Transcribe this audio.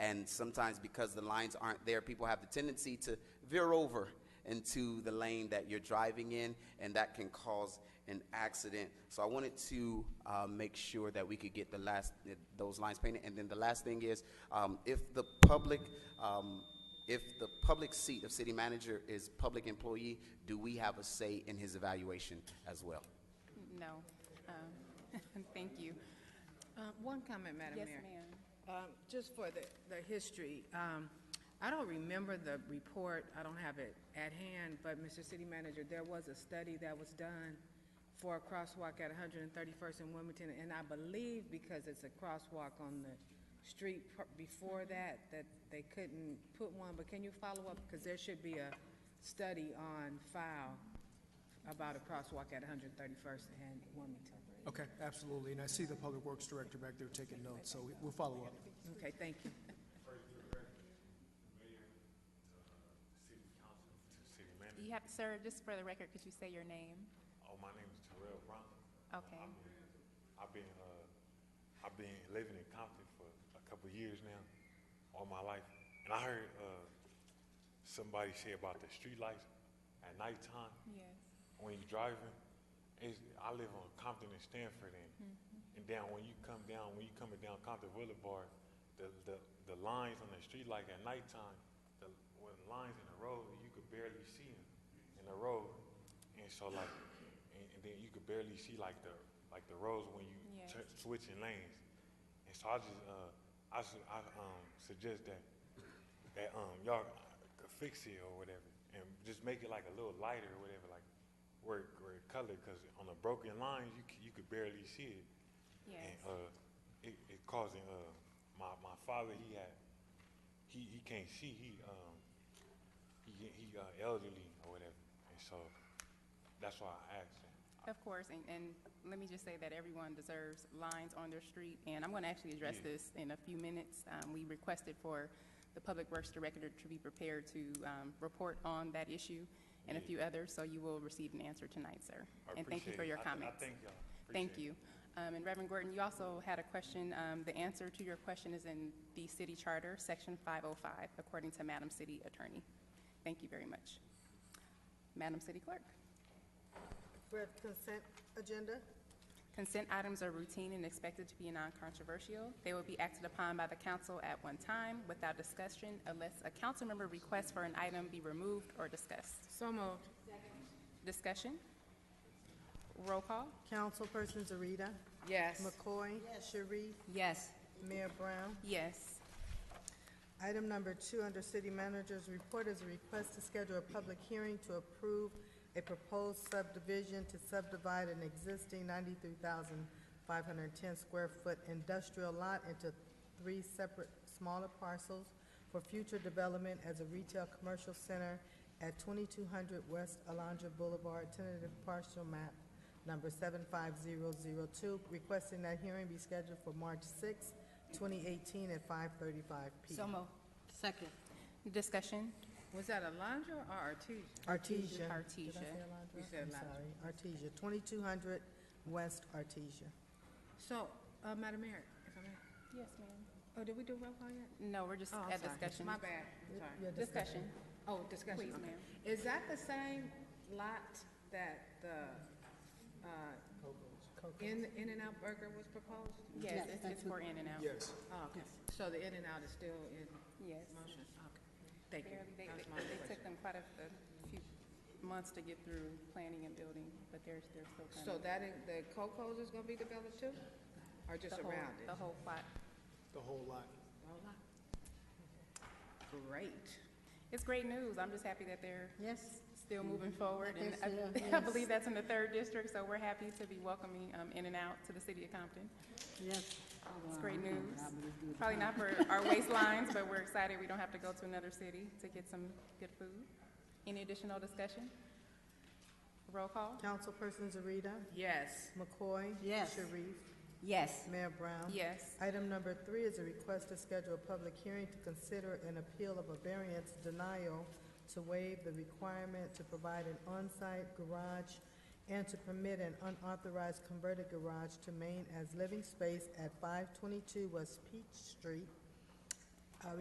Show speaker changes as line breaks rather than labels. And sometimes because the lines aren't there, people have the tendency to veer over into the lane that you're driving in, and that can cause an accident. So I wanted to uh, make sure that we could get the last, eh, those lines painted. And then the last thing is, um, if the public, um, if the public seat of city manager is public employee, do we have a say in his evaluation as well?
No. Um, Thank you.
Uh, One comment, Madam
Yes,
Mayor.
ma'am.
Um, Just for the, the history, um, I don't remember the report, I don't have it at hand, but Mr. City Manager, there was a study that was done for a crosswalk at 131st and Wilmington, and I believe because it's a crosswalk on the street pr- before
Mm-hmm.
that, that they couldn't put one, but can you follow up? Because there should be a study on file about a crosswalk at 131st and Wilmington.
Okay, absolutely, and I see the Public Works Director back there taking notes, so we- we'll follow up.
Okay, thank you.
City Manager.
You have, sir, just for the record, could you say your name?
Oh, my name is Terrell Bronson.
Okay.
I've been, uh, I've been living in Compton for a couple of years now, all my life. And I heard, uh, somebody say about the streetlights at nighttime
Yes.
when you're driving. It's, I live on Compton and Stanford and, and down, when you come down, when you coming down Compton Boulevard, the, the, the lines on the streetlight at nighttime, the, when lines in the road, you could barely see them in the road. And so like, and, and then you could barely see like the, like the roads when you
Yes.
tur- switching lanes. And so I just, uh, I, su- I, um, suggest that, that, um, y'all could fix it or whatever, and just make it like a little lighter or whatever, like, where, it- where it colored, cause on the broken lines, you, c- you could barely see it.
Yes.
And, uh, it, it causing, uh, my, my father, he had, he, he can't see, he, um, he, he, uh, elderly or whatever, and so, that's why I asked him.
Of course, and, and let me just say that everyone deserves lines on their street, and I'm going to actually address this in a few minutes. Um, We requested for the Public Works Director to be prepared to um, report on that issue and a few others, so you will receive an answer tonight, sir.
I
And thank you
appreciate
for
it.
your
I th-
comments.
I thank y'all.
Thank
Appreciate it.
you. Um, And Reverend Gordon, you also had a question. Um, The answer to your question is in the city charter, section 505, according to Madam City Attorney. Thank you very much. Madam City Clerk?
We have consent agenda.
Consent items are routine and expected to be non-controversial. They will be acted upon by the council at one time without discussion unless a council member requests for an item be removed or discussed.
So moved.
Discussion? Roll call?
Councilperson Zarita.
Yes.
McCoy. Sharif.
Yes.
Mayor Brown.
Yes.
Item number two, under City Manager's Report, is a request to schedule a public hearing to approve a proposed subdivision to subdivide an existing ninety-three thousand five hundred and ten square foot industrial lot into three separate smaller parcels for future development as a retail commercial center at twenty-two hundred West Alondra Boulevard, tentative partial map number seven five zero zero two, requesting that hearing be scheduled for March sixth, twenty eighteen at five thirty-five P M.
Second.
Discussion?
Was that Alondra or Artesia?
Artesia.
Artesia. Did I say
You
Alondra?
said
I'm
Alondra.
sorry, Artesia, twenty-two hundred West Artesia.
So, uh, Madam Mayor, if I may,
Yes, ma'am.
oh, did we do roll call yet?
No, we're just
Oh, I'm
at
sorry.
discussion.
My bad, I'm sorry.
Yeah,
Discussion.
Oh,
Please,
discussion, okay.
ma'am.
Is that the same lot that the, uh, In, In-N-Out Burger was proposed?
Yes, it's- it's for in and out.
Yes.
Oh, okay, so the In-N-Out is still in
Yes.
motion, okay, thank you.
Barely. They,
That was my
they-
only
they took
question.
them quite a, a few months to get through planning and building, but they're, they're still kind of.
So that, in- the Coco's is gonna be developed too, or
the
just
whole-
around it?
The whole plot.
The whole lot.
Whole lot.
Oh.
Great.
It's great news. I'm just happy that they're
Yes.
still moving forward. And
Yes,
I- I believe that's in the third district, so we're happy to be welcoming um, In and Out to the city of Compton.
Yes.
It's great news. Probably not for our waistlines, but we're excited we don't have to go to another city to get some good food. Any additional discussion? Roll call?
Councilperson Zarita.
Yes.
McCoy.
Yes.
Sharif.
Yes.
Mayor Brown.
Yes.
Item number three is a request to schedule a public hearing to consider an appeal of a variance denial to waive the requirement to provide an on-site garage and to permit an unauthorized converted garage to main as living space at five twenty-two West Peach Street